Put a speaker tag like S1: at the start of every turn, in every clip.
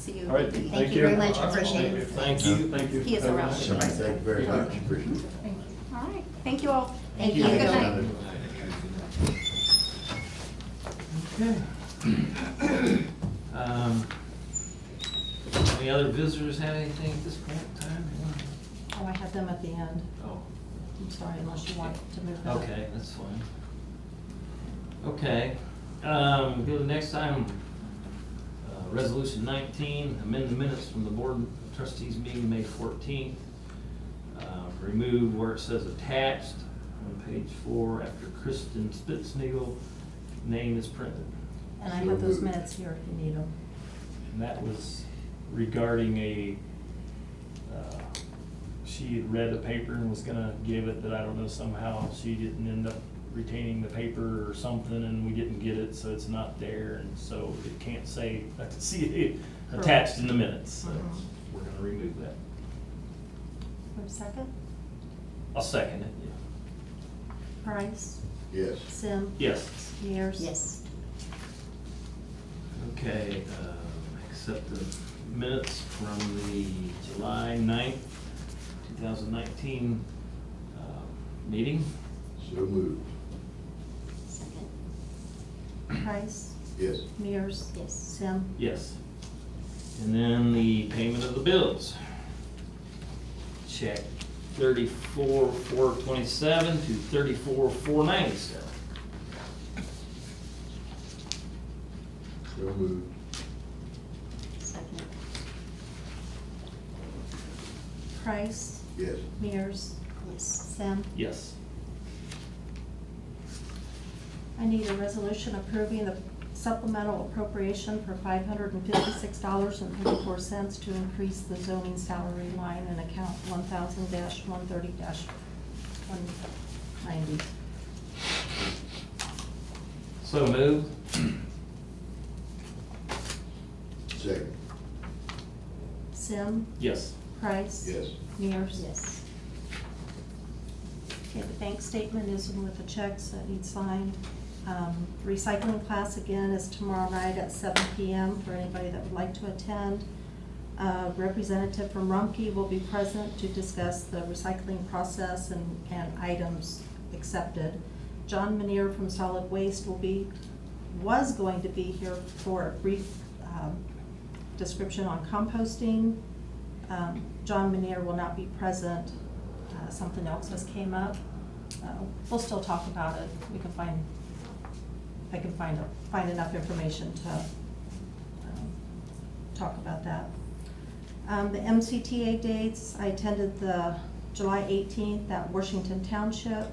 S1: See you.
S2: All right,
S1: Thank you very much, appreciate it.
S2: Thank you, thank you.
S1: He is around.
S3: So thank you very much. Appreciate it.
S1: All right, thank you all.
S3: Thank
S1: Have a good night.
S3: you.
S4: Um, Any other visitors have anything at this point in time?
S5: Oh, I had them at the end.
S4: Oh,
S5: I'm sorry, unless you want to move that.
S4: okay, that's fine. Okay, um, go to the next item. Uh, Resolution nineteen, amend the minutes from the board of trustees meeting May fourteenth. Uh, Remove where it says attached on page four after Kristen Spitznagel name is printed.
S5: And I have those minutes here if you need them.
S4: And that was regarding a, uh, she had read the paper and was gonna give it, but I don't know somehow she didn't end up retaining the paper or something and we didn't get it, so it's not there and so it can't say, I can see it attached in the minutes, so
S5: Mhm.
S4: we're gonna remove that.
S5: Wait a second.
S4: I'll second it, yeah.
S5: Price,
S3: Yes.
S5: Sim.
S4: Yes.
S5: Mears.
S1: Yes.
S4: Okay, uh, accept the minutes from the July ninth, two thousand nineteen, uh, meeting.
S3: So moved.
S1: Second.
S5: Price,
S3: Yes.
S5: Mears.
S1: Yes.
S5: Sim.
S4: Yes. And then the payment of the bills. Check thirty-four, four twenty-seven to thirty-four, four ninety-seven.
S3: So moved.
S1: Second.
S5: Price,
S3: Yes.
S5: Mears.
S1: Yes.
S5: Sim.
S4: Yes.
S5: I need a resolution approving the supplemental appropriation for five hundred and fifty-six dollars and thirty-four cents to increase the zoning salary line in account one thousand one thirty one ninety.
S4: So moved.
S3: Second.
S5: Sim.
S4: Yes.
S5: Price.
S3: Yes.
S5: Mears.
S1: Yes.
S5: Okay, the bank statement is in with the checks that need signed. Um, Recycling class again is tomorrow night at seven PM for anybody that would like to attend. Uh, Representative from Rumpke will be present to discuss the recycling process and, and items accepted. John Manier from Solid Waste will be, was going to be here for a brief um, description on composting. Um, John Manier will not be present. Uh, Something else has came up. Uh, We'll still talk about it. We can find, I can find, find enough information to um, talk about that. Um, The MCTA dates, I attended the July 18th at Washington Township.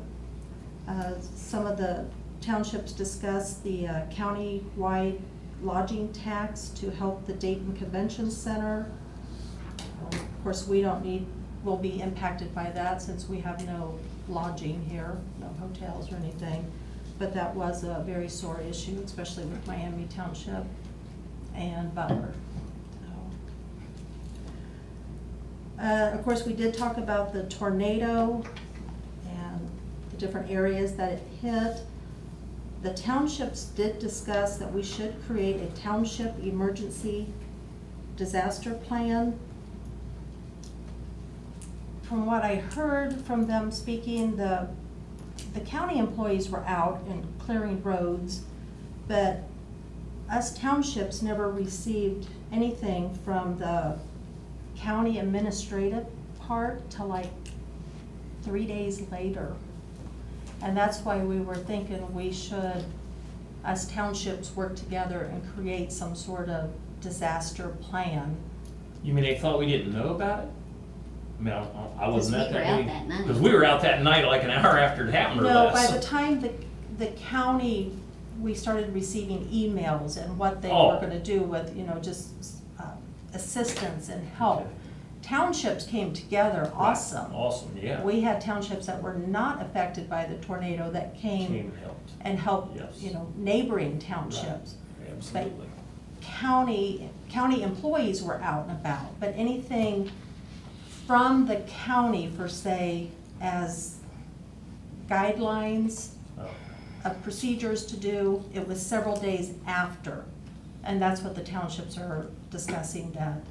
S5: Uh, Some of the townships discussed the uh, county-wide lodging tax to help the Dayton Convention Center. Of course, we don't need, we'll be impacted by that since we have no lodging here, no hotels or anything. But that was a very sore issue, especially with Miami Township and Butler. So. Uh, of course, we did talk about the tornado and the different areas that it hit. The townships did discuss that we should create a township emergency disaster plan. From what I heard from them speaking, the, the county employees were out and clearing roads, but us townships never received anything from the county administrative part till like three days later. And that's why we were thinking we should, us townships, work together and create some sort of disaster plan.
S4: You mean they thought we didn't know about it? I mean, I, I- I wasn't at
S1: Because we
S4: that
S1: were out
S4: meeting.
S1: that night.
S4: Because we were out that night, like an hour after it happened or
S5: No, by
S4: less.
S5: the time the, the county, we started receiving emails and what they
S4: Oh.
S5: were gonna do with, you know, just uh, assistance and help.
S4: Okay.
S5: Townships came together,
S4: Right.
S5: awesome.
S4: Awesome, yeah.
S5: We had townships that were not affected by the tornado that
S4: Came
S5: came
S4: and helped.
S5: and helped,
S4: Yes.
S5: you know, neighboring townships.
S4: Right, Absolutely.
S5: County, county employees were out and about, but anything from the county per se as guidelines
S4: Oh,
S5: of procedures to do, it was several days after. And that's what the townships are discussing that